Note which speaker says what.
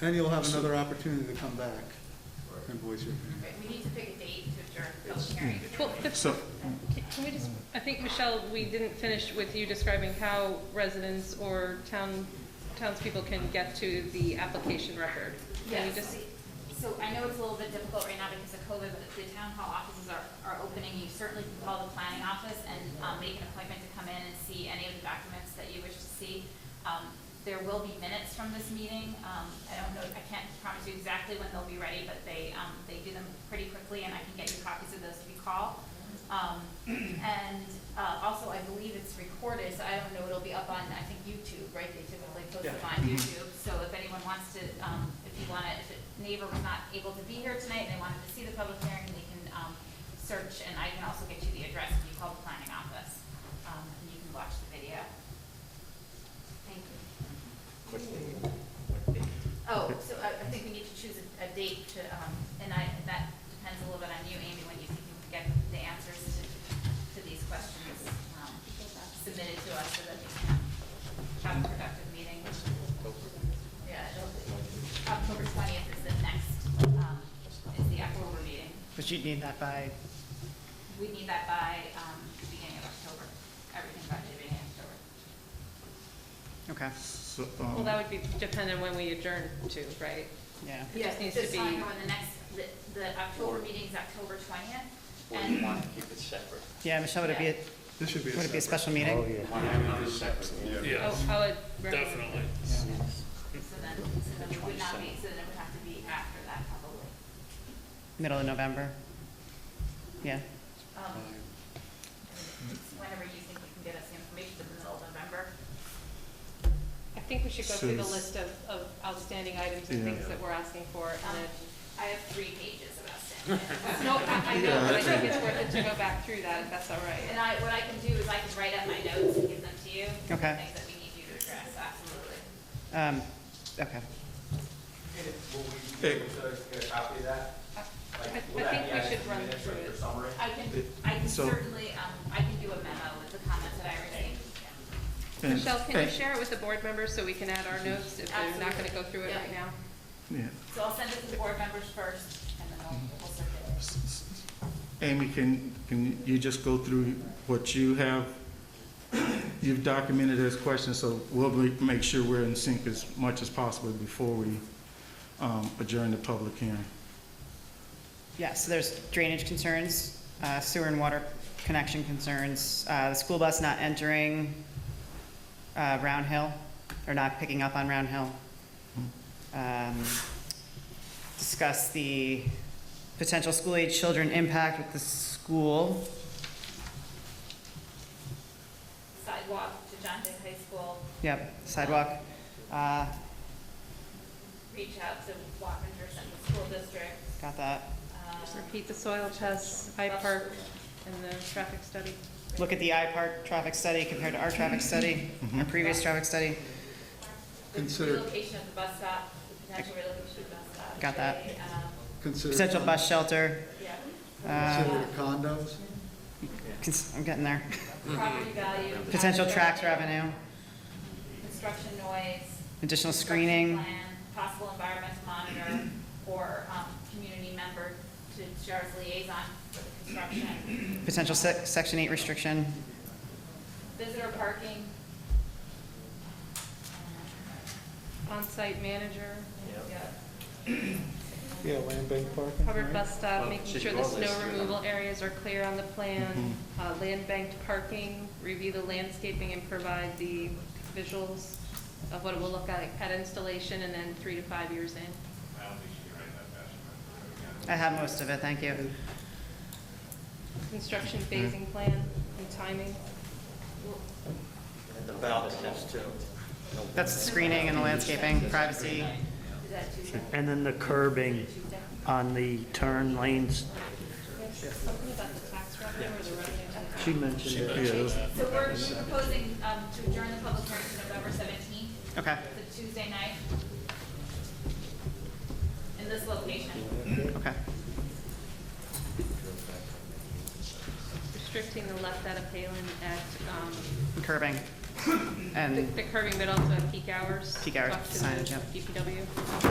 Speaker 1: And you'll have another opportunity to come back
Speaker 2: Right.
Speaker 1: and voice your opinion.
Speaker 3: Right, we need to pick a date to adjourn the public hearing.
Speaker 4: Well, the-
Speaker 5: So,
Speaker 4: Can can we just, I think, Michelle, we didn't finish with you describing how residents or town, townspeople can get to the application record. Can we
Speaker 3: Yes,
Speaker 4: just-
Speaker 3: so I know it's a little bit difficult right now because of COVID, but the town hall offices are, are opening. You certainly can call the planning office and, um, make an appointment to come in and see any of the documents that you wish to see. Um, there will be minutes from this meeting. Um, I don't know, I can't promise you exactly when they'll be ready, but they, um, they do them pretty quickly and I can get you copies of those if you call. Um, and, uh, also I believe it's recorded, so I don't know, it'll be up on, I think, YouTube, right? They typically post it on YouTube. So if anyone wants to, um, if you want to, if a neighbor was not able to be here tonight and they wanted to see the public hearing, they can, um, search, and I can also get you the address if you call the planning office. Um, and you can watch the video. Thank you. Oh, so I, I think we need to choose a, a date to, um, and I, that depends a little bit on you, Amy, when you think you can get the answers to, to these questions, um, submitted to us so that we can have a productive meeting. Yeah, it'll be- October twentieth is the next, um, is the October meeting.
Speaker 6: But you'd need that by,
Speaker 3: We need that by, um, the beginning of October, everything by the beginning of October.
Speaker 6: okay,
Speaker 5: so,
Speaker 4: Well,
Speaker 5: um,
Speaker 4: that would be dependent on when we adjourn to, right?
Speaker 6: yeah.
Speaker 4: It just needs to
Speaker 3: Just telling
Speaker 4: be-
Speaker 3: you when the next, the, the October meeting's October twentieth,
Speaker 7: Or
Speaker 3: and
Speaker 7: you want to keep it separate?
Speaker 6: Yeah, Michelle, would it be, a-
Speaker 1: This should be
Speaker 6: would it
Speaker 1: a
Speaker 6: be a
Speaker 1: separate.
Speaker 6: special meeting?
Speaker 7: Want to have it separate?
Speaker 4: Oh,
Speaker 8: Yeah,
Speaker 4: I would.
Speaker 8: definitely.
Speaker 3: So then, so then it would not be, so then it would have to be after that probably.
Speaker 6: Middle of November? Yeah,
Speaker 3: Um, Whenever you think you can get us the information in the middle of November.
Speaker 4: I think we should go through the list
Speaker 5: Since-
Speaker 4: of, of outstanding items and
Speaker 5: Yeah.
Speaker 4: things that we're asking for, and
Speaker 3: Um,
Speaker 4: then,
Speaker 3: I have three pages about that.
Speaker 4: no, I, I know, but I think it's worth it to go back through that, if that's all
Speaker 3: And
Speaker 4: right.
Speaker 3: I, what I can do is I can write up my notes and give them to you.
Speaker 6: Okay.
Speaker 3: Things that we need you to address, absolutely.
Speaker 6: um, okay.
Speaker 2: Will we be able to get a copy of that? Like,
Speaker 4: I-
Speaker 2: will
Speaker 4: I
Speaker 2: that
Speaker 4: think
Speaker 2: be
Speaker 4: we
Speaker 2: added
Speaker 4: should
Speaker 2: to the
Speaker 4: run
Speaker 2: minutes,
Speaker 4: through
Speaker 2: like,
Speaker 4: it.
Speaker 2: your Summary?
Speaker 3: I can, I can
Speaker 5: So-
Speaker 3: certainly, um, I can do a memo with the comments that I received.
Speaker 5: and-
Speaker 4: Michelle, can you
Speaker 5: and-
Speaker 4: share it with the board members so we can add our notes if they're not gonna go through it right
Speaker 3: Absolutely. Yeah.
Speaker 4: now?
Speaker 5: yeah.
Speaker 3: So I'll send it to the board members first, and then we'll, we'll circulate.
Speaker 5: S- s- Amy, can, can you just go through what you have, you've documented as questions, so we'll be- make sure we're in sync as much as possible before we um, adjourn the public hearing.
Speaker 6: Yeah, so there's drainage concerns, uh, sewer and water connection concerns, uh, the school bus not entering uh, Round Hill, or not picking up on Round Hill. Um, Discuss the potential school-age children impact with the school.
Speaker 3: Sidewalk to John Day High School,
Speaker 6: Yep, sidewalk. Uh,
Speaker 3: reach out to Wappinger Central School District.
Speaker 6: Got that.
Speaker 3: um,
Speaker 4: Just repeat the soil tests, I park, and the traffic study.
Speaker 6: Look at the IPART traffic study compared to our traffic study, our previous traffic study.
Speaker 3: The
Speaker 1: Consider-
Speaker 3: relocation of the bus stop, the potential relocation of the bus stop.
Speaker 6: Got that.
Speaker 3: okay, um,
Speaker 1: Consider-
Speaker 6: Potential bus shelter,
Speaker 3: Yeah,
Speaker 1: Consider condos.
Speaker 6: cons- I'm getting there.
Speaker 3: Uh, property value.
Speaker 6: Mm-hmm. Potential
Speaker 3: tax
Speaker 6: tax revenue,
Speaker 3: Construction noise. construction
Speaker 6: additional screening,
Speaker 3: Plan, possible environmental monitor or, um, community member to sheriff's liaison for the construction.
Speaker 6: potential sec- section eight restriction,
Speaker 3: Visitor parking.
Speaker 4: On-site manager,
Speaker 3: Yeah.
Speaker 1: Yeah, land bank parking.
Speaker 4: covered
Speaker 1: right?
Speaker 4: bus stop,
Speaker 7: Well,
Speaker 4: making
Speaker 7: should
Speaker 4: sure
Speaker 7: go
Speaker 4: the
Speaker 7: on
Speaker 4: snow
Speaker 7: this, you know.
Speaker 4: removal areas are clear on the plan,
Speaker 7: Mm-hmm.
Speaker 4: uh, land banked parking, review the landscaping and provide the visuals of what it will look like at installation and then three to five years in.
Speaker 6: I have most of it, thank you.
Speaker 4: Construction
Speaker 7: Mm-hmm.
Speaker 4: phasing plan and timing.
Speaker 7: And the ballot test too.
Speaker 6: That's the screening and the landscaping, privacy,
Speaker 3: Is that too much?
Speaker 9: And then the curbing on the turn lanes,
Speaker 4: Something about the tax revenue or the revenue.
Speaker 9: she mentioned it.
Speaker 3: So we're we're proposing, um, to adjourn the public hearing to November seventeenth,
Speaker 6: okay,
Speaker 3: it's a Tuesday night. In this location.
Speaker 6: okay.
Speaker 4: Restricting the left out of Palin at, um,
Speaker 6: Curbing
Speaker 4: The
Speaker 6: and
Speaker 4: the curbing, but also at peak hours.
Speaker 6: Peak hours,
Speaker 4: Talk to the
Speaker 6: signage, yep.
Speaker 4: DPW.